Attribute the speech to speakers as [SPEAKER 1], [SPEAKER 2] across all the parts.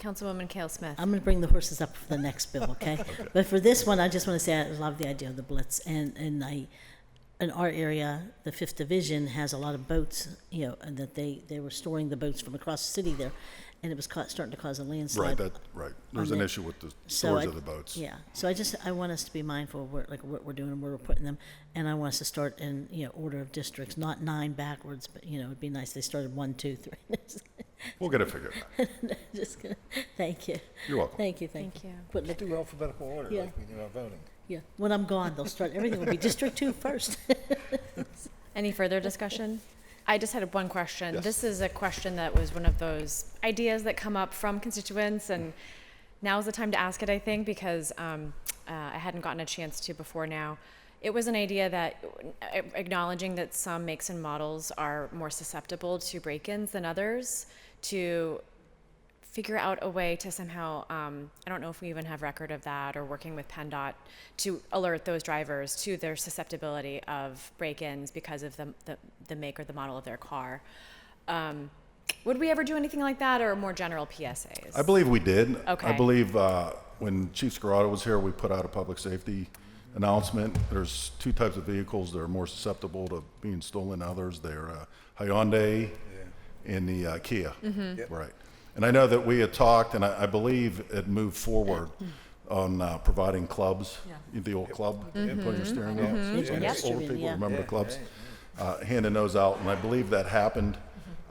[SPEAKER 1] Councilwoman Kale Smith.
[SPEAKER 2] I'm going to bring the horses up for the next bill, okay? But for this one, I just want to say I love the idea of the Blitz, and and I, in our area, the Fifth Division has a lot of boats, you know, and that they they were storing the boats from across the city there, and it was ca- starting to cause a landslide.
[SPEAKER 3] Right, that, right. There's an
[SPEAKER 2] the-
[SPEAKER 3] issue with the
[SPEAKER 2] So
[SPEAKER 3] storage
[SPEAKER 2] I-
[SPEAKER 3] of the boats.
[SPEAKER 2] Yeah. So I just I want us to be mindful of where, like what we're doing and where we're putting them, and I want us to start in you know order of districts, not nine backwards, but you know it'd be nice they started one, two, three.
[SPEAKER 3] We'll get it figured out.
[SPEAKER 2] just gonna, thank you,
[SPEAKER 3] You're welcome.
[SPEAKER 2] thank you, thank,
[SPEAKER 1] Thank you.
[SPEAKER 2] Quit looking-
[SPEAKER 4] Do alphabetical order
[SPEAKER 2] Yeah.
[SPEAKER 4] like we do our voting.
[SPEAKER 2] yeah. When I'm gone, they'll start everything will be District Two first.
[SPEAKER 1] Any further discussion? I just had one question.
[SPEAKER 3] Yes.
[SPEAKER 1] This is a question that was one of those ideas that come up from constituents, and now's the time to ask it, I think, because um, uh, I hadn't gotten a chance to before now. It was an idea that uh, acknowledging that some makes and models are more susceptible to break ins than others, to figure out a way to somehow um, i don't know if we even have record of that or working with pendot to alert those drivers to their susceptibility of break-ins because of the, the, the make or the model of their car um, would we ever do anything like that or more general psas
[SPEAKER 3] I believe we did. I
[SPEAKER 1] Okay.
[SPEAKER 3] believe uh, when Chief Scarrato was here, we put out a public safety announcement. There's two types of vehicles that are more susceptible to being stolen than others. They're uh, Hyundai and the uh, Kia.
[SPEAKER 2] Mm-hmm.
[SPEAKER 4] Yep.
[SPEAKER 3] Right. And I know that we had talked, and I I believe it moved forward on uh, providing clubs, the old club, you
[SPEAKER 2] Mm-hmm.
[SPEAKER 3] put your steering wheel.
[SPEAKER 1] Mm-hmm.
[SPEAKER 3] So
[SPEAKER 2] Yep.
[SPEAKER 3] Older people
[SPEAKER 2] Yeah.
[SPEAKER 3] remember the clubs, uh, handing those out, and I believe that happened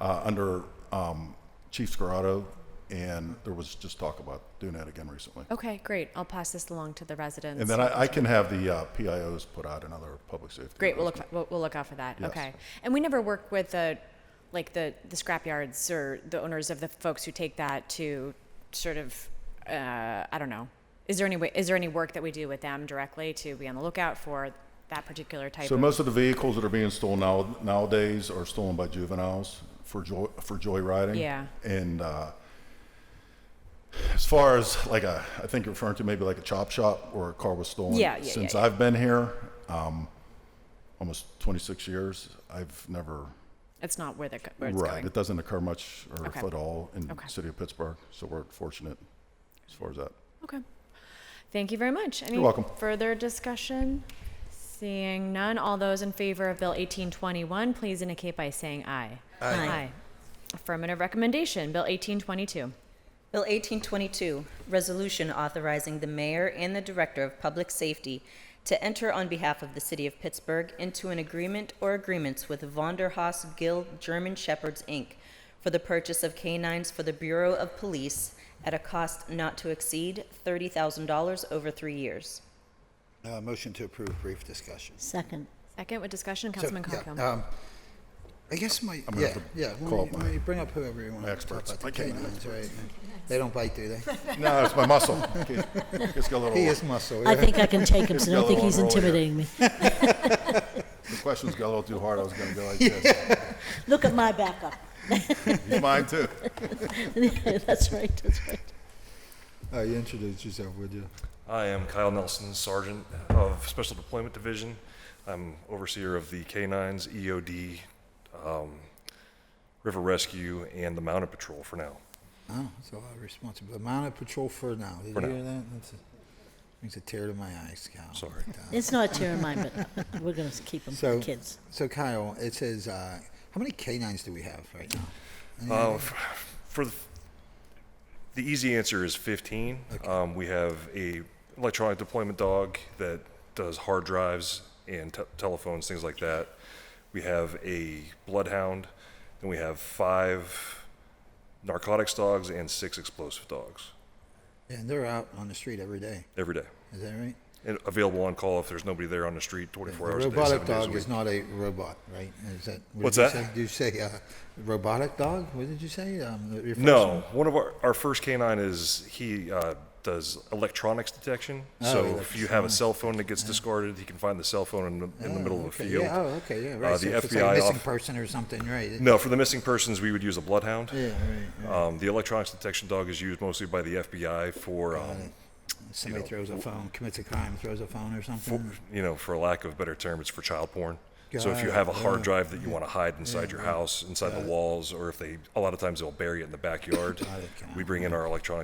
[SPEAKER 3] uh, under um, Chief Scarrato, and there was just talk about doing that again recently.
[SPEAKER 1] okay great i'll pass this along to the residents
[SPEAKER 3] And then I, I can have the uh, PIOs put out another public safety.
[SPEAKER 1] Great. We'll look. We'll, we'll look out for that.
[SPEAKER 3] Yes.
[SPEAKER 1] Okay. And we never work with the, like the the scrap yards or the owners of the folks who take that to, sort of, uh, I don't know. Is there any way? Is there any work that we do with them directly to be on the lookout for that particular type
[SPEAKER 3] So
[SPEAKER 1] of?
[SPEAKER 3] most of the vehicles that are being stolen now, nowadays are stolen by juveniles for joy, for joyriding.
[SPEAKER 1] Yeah.
[SPEAKER 3] And uh, as far as like a, I think you're referring to maybe like a chop shop where a car was stolen.
[SPEAKER 1] Yeah, yeah, yeah,
[SPEAKER 3] Since
[SPEAKER 1] yeah.
[SPEAKER 3] I've been here, um, almost 26 years, I've never.
[SPEAKER 1] it's not where the where it's
[SPEAKER 3] right.
[SPEAKER 1] going.
[SPEAKER 3] It doesn't occur much or
[SPEAKER 1] Okay.
[SPEAKER 3] if at all in
[SPEAKER 1] Okay.
[SPEAKER 3] the city of Pittsburgh. So we're fortunate as far as that.
[SPEAKER 1] Okay. Thank you very much. Any
[SPEAKER 3] welcome.
[SPEAKER 1] Further discussion? Seeing none, all those in favor of Bill 1821, please indicate by saying aye.
[SPEAKER 2] Aye.
[SPEAKER 1] Affirmative recommendation, Bill 1822.
[SPEAKER 5] Bill 1822, Resolution Authorizing the Mayor and the Director of Public Safety to Enter on Behalf of the City of Pittsburgh into an Agreement or Agreements with Vonderhaus Guild German Shepherds, Inc. for the purchase of canines for the Bureau of Police at a cost not to exceed $30,000 over three years.
[SPEAKER 4] Uh, motion to approve, brief discussion.
[SPEAKER 2] Second.
[SPEAKER 1] Second with discussion,
[SPEAKER 4] So,
[SPEAKER 1] Councilman
[SPEAKER 4] yeah,
[SPEAKER 1] Coghill.
[SPEAKER 4] um, I guess my,
[SPEAKER 3] gonna
[SPEAKER 4] yeah,
[SPEAKER 3] have to
[SPEAKER 4] yeah,
[SPEAKER 3] call
[SPEAKER 4] when
[SPEAKER 3] up
[SPEAKER 4] you,
[SPEAKER 3] my
[SPEAKER 4] when you bring up whoever you want to talk
[SPEAKER 3] experts.
[SPEAKER 4] about
[SPEAKER 3] I
[SPEAKER 4] the
[SPEAKER 3] can't-
[SPEAKER 4] canines, right? They don't bite, do they?
[SPEAKER 3] No, it's my muscle. Okay. It's got a little.
[SPEAKER 4] He is muscle,
[SPEAKER 2] I
[SPEAKER 4] yeah.
[SPEAKER 2] think I can take him, so I don't think he's intimidating me.
[SPEAKER 3] The questions got a little too hard. I was going to go like this.
[SPEAKER 2] Look at my backup.
[SPEAKER 3] He's mine too.
[SPEAKER 2] That's right, that's right.
[SPEAKER 4] Uh, you introduced yourself, would you?
[SPEAKER 6] I am Kyle Nelson, Sergeant of Special Deployment Division. I'm overseer of the K-9s, EOD, um, River Rescue, and the Mounted Patrol for now.
[SPEAKER 4] Oh, that's a lot of responsibility. Mounted patrol for now. Did
[SPEAKER 6] For
[SPEAKER 4] you
[SPEAKER 6] now.
[SPEAKER 4] hear that? That's a, brings a tear to my eyes, Kyle. Uh,
[SPEAKER 6] Sorry.
[SPEAKER 2] It's not a tear in mine, but we're going to keep him for
[SPEAKER 4] So,
[SPEAKER 2] the kids.
[SPEAKER 4] so Kyle, it says, uh, how many canines do we have right now?
[SPEAKER 6] Uh, f- for the, the easy answer is 15. Um, we have a electronic deployment dog that does hard drives and te- telephones, things like that. We have a bloodhound, then we have five narcotics dogs and six explosive dogs
[SPEAKER 4] And they're out on the street every day.
[SPEAKER 6] every day,
[SPEAKER 4] Is that right?
[SPEAKER 6] and available on call if there's nobody there on the street 24
[SPEAKER 4] A
[SPEAKER 6] hours a day,
[SPEAKER 4] robotic
[SPEAKER 6] seven days a
[SPEAKER 4] dog
[SPEAKER 6] week.
[SPEAKER 4] is not a robot, right? Is that what
[SPEAKER 6] What's
[SPEAKER 4] did you
[SPEAKER 6] that?
[SPEAKER 4] Say? Did you say uh, robotic dog? What did you say? Um, your first
[SPEAKER 6] No,
[SPEAKER 4] one?
[SPEAKER 6] one of our, our first canine is he uh, does electronics detection.
[SPEAKER 4] Oh,
[SPEAKER 6] so if you have a cell phone that gets discarded, he can find the cell phone in the, in the middle of a
[SPEAKER 4] Okay,
[SPEAKER 6] field.
[SPEAKER 4] Yeah. Oh, okay. Yeah.
[SPEAKER 6] Uh,
[SPEAKER 4] Right. so
[SPEAKER 6] the
[SPEAKER 4] if it's like
[SPEAKER 6] FBI
[SPEAKER 4] a missing
[SPEAKER 6] off-
[SPEAKER 4] person or something, right?
[SPEAKER 6] No, for the missing persons, we would use a bloodhound.
[SPEAKER 4] Yeah. Right. right.
[SPEAKER 6] Um, the electronics detection dog is used mostly by the FBI for, um,
[SPEAKER 4] Somebody throws a phone, commits a crime, throws a phone or something.
[SPEAKER 6] you know, for lack of a better term, it's for child porn. So if you
[SPEAKER 4] Got
[SPEAKER 6] have a
[SPEAKER 4] it,
[SPEAKER 6] hard
[SPEAKER 4] yeah,
[SPEAKER 6] drive that you want to hide inside your house, inside the walls, or if they, a lot of times they'll bury it in the backyard,
[SPEAKER 4] it, got
[SPEAKER 6] we bring in our electronic